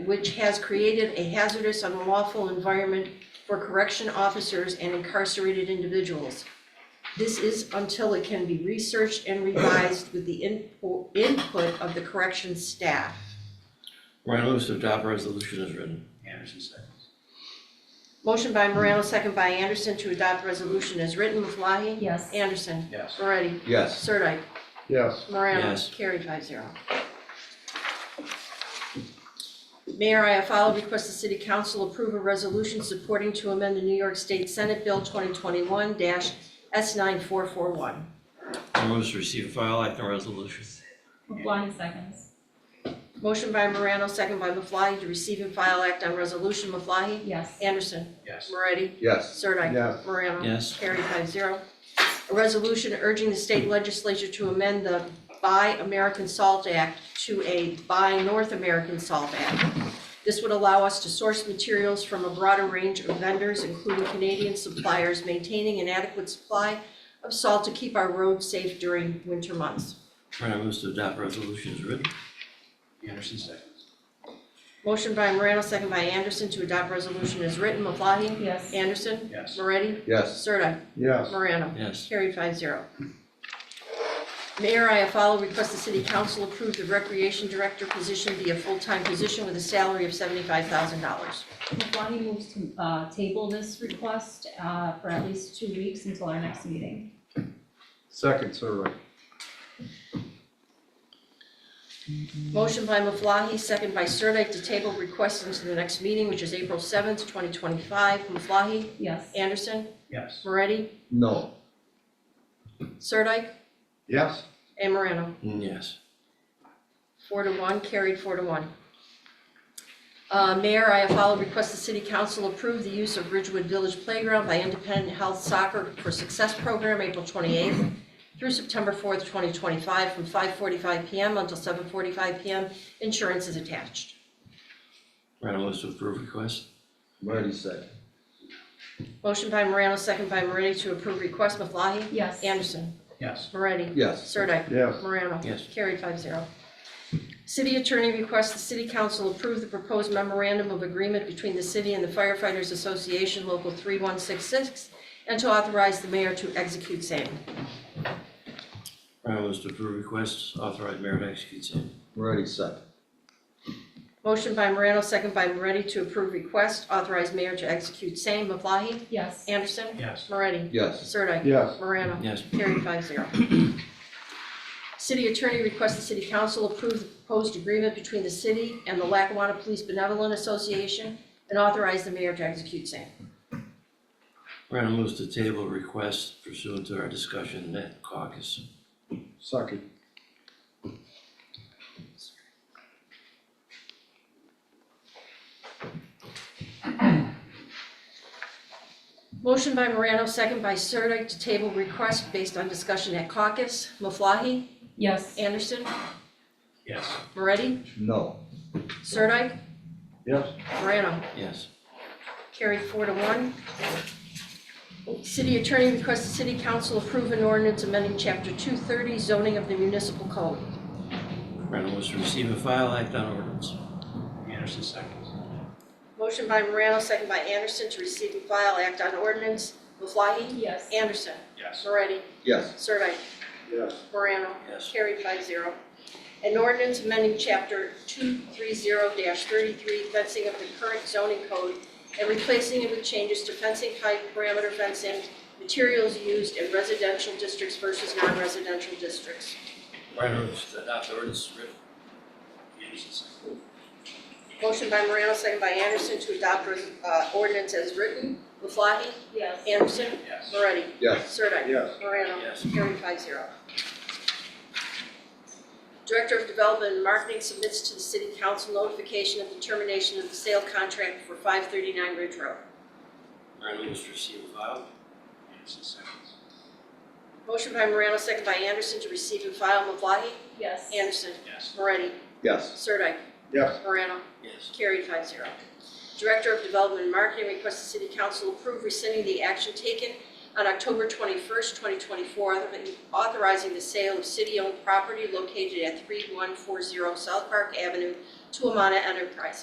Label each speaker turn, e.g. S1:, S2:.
S1: which has created a hazardous unlawful environment for correction officers and incarcerated individuals. This is until it can be researched and revised with the inpo- input of the corrections staff.
S2: Ryan moves to adopt resolution as written.
S3: Anderson seconds.
S1: Motion by Morano, second by Anderson to adopt resolution as written. Maflahe?
S4: yes,
S1: Anderson?
S3: Yes.
S1: Moretti?
S5: Yes.
S1: Sirdike?
S5: Yes.
S1: Morano,
S2: Yes.
S1: carried five zero. Mayor Iafallo requests the city council approve a resolution supporting to amend the New York State Senate Bill twenty twenty-one S nine four four one.
S2: Ryan moves to receive and file act on resolution.
S4: Maflahe seconds,
S1: Motion by Morano, second by Maflahe, to receive and file act on resolution. Maflahe?
S4: yes,
S1: Anderson?
S3: Yes.
S1: Moretti?
S5: Yes.
S1: Sirdike?
S5: Yes.
S1: Morano?
S2: Yes.
S1: Carried five zero. A resolution urging the state legislature to amend the Buy American Salt Act to a Buy North American Salt Act. This would allow us to source materials from a broader range of vendors, including Canadian suppliers, maintaining an adequate supply of salt to keep our roads safe during winter months.
S2: Ryan moves to adopt resolution as written.
S3: Anderson seconds.
S1: Motion by Morano, second by Anderson to adopt resolution as written. Maflahe?
S4: yes,
S1: Anderson?
S3: Yes.
S1: Moretti?
S5: Yes.
S1: Sirdike?
S5: Yes.
S1: Morano?
S2: Yes.
S1: Carried five zero. Mayor Iafallo requests the city council approve the recreation director position be a full-time position with a salary of seventy-five thousand dollars.
S4: Maflahe moves to, uh, table this request, uh, for at least two weeks until our next meeting.
S5: Second, Sirdike.
S1: Motion by Maflahe, second by Sirdike to table request into the next meeting, which is April seventh, twenty twenty-five. Maflahe,
S4: Yes,
S1: Anderson,
S3: Yes.
S1: Moretti,
S5: No.
S1: Sirdike,
S5: Yes.
S1: and Morano.
S2: Mm, Yes.
S1: Four to one, carried four to one. Uh, Mayor Iafallo requests the city council approve the use of Ridgewood Village Playground by Independent Health Soccer for Success Program, April 28th through September 4th, 2025, from 5:45 PM until 7:45 PM. Insurance is attached.
S2: Ryan moves to approve request.
S5: Moretti second.
S1: Motion by Morano, second by Moretti to approve request. Maflahe?
S4: yes.
S1: Anderson?
S3: Yes.
S1: Moretti?
S5: Yes.
S1: Sirdike?
S5: Yes.
S1: Morano?
S2: Yes.
S1: Carried five zero. City attorney requests the city council approve the proposed memorandum of agreement between the city and the firefighters association local three one six six and to authorize the mayor to execute same.
S2: Ryan moves to approve request, authorize mayor to execute same.
S5: Moretti second.
S1: Motion by Morano, second by Moretti to approve request, authorize mayor to execute same. Maflahe?
S4: Yes,
S1: Anderson?
S3: Yes.
S1: Moretti?
S5: Yes.
S1: Sirdike?
S5: Yes.
S1: Morano?
S2: Yes.
S1: Carried five zero. City attorney requests the city council approve the proposed agreement between the city and the Lackawanna Police Benevolent Association and authorize the mayor to execute same.
S2: Ryan moves to table request pursuant to our discussion at caucus.
S5: Second.
S1: Motion by Morano, second by Sirdike to table request based on discussion at caucus. Maflahe?
S4: yes,
S1: Anderson?
S3: Yes.
S1: Moretti?
S5: No.
S1: Sirdike?
S5: Yes.
S1: Morano?
S2: Yes.
S1: Carried four to one. City attorney requests the city council approve an ordinance amending chapter two thirty zoning of the municipal code.
S2: Ryan moves to receive and file act on ordinance.
S3: Anderson seconds.
S1: Motion by Morano, second by Anderson to receive and file act on ordinance. Maflahe?
S4: yes.
S1: Anderson?
S3: Yes.
S1: Moretti?
S5: Yes.
S1: Sirdike?
S5: Yes.
S1: Morano?
S2: Yes.
S1: Carried five zero. An ordinance amending chapter two three zero thirty-three fencing of the current zoning code and replacing it with changes to fencing height, parameter fencing, materials used in residential districts versus non-residential districts.
S2: Ryan moves to adopt ordinance as written.
S3: Anderson seconds.
S1: Motion by Morano, second by Anderson to adopt uh, ordinance as written. Maflahe?
S4: Yes.
S1: Anderson?
S3: Yes.
S1: Moretti?
S5: Yes.
S1: Sirdike?
S5: Yes.
S1: Morano?
S2: Yes.
S1: Carried five zero. Director of Development and Marketing submits to the City Council notification of the termination of the sale contract for five thirty-nine Ridge Road.
S2: Ryan moves to receive and file.
S3: Anderson seconds.
S1: Motion by Morano, second by Anderson to receive and file. Maflahe?
S4: Yes.
S1: Anderson?
S3: Yes.
S1: Moretti?
S5: Yes.
S1: Sirdike?
S5: Yes.
S1: Morano?
S2: Yes.
S1: Carried five zero. Director of Development and Marketing requests the City Council approve rescinding the action taken on October twenty-first, twenty twenty-four, authorizing the sale of city-owned property located at three one four zero South Park Avenue to Amana Enterprises.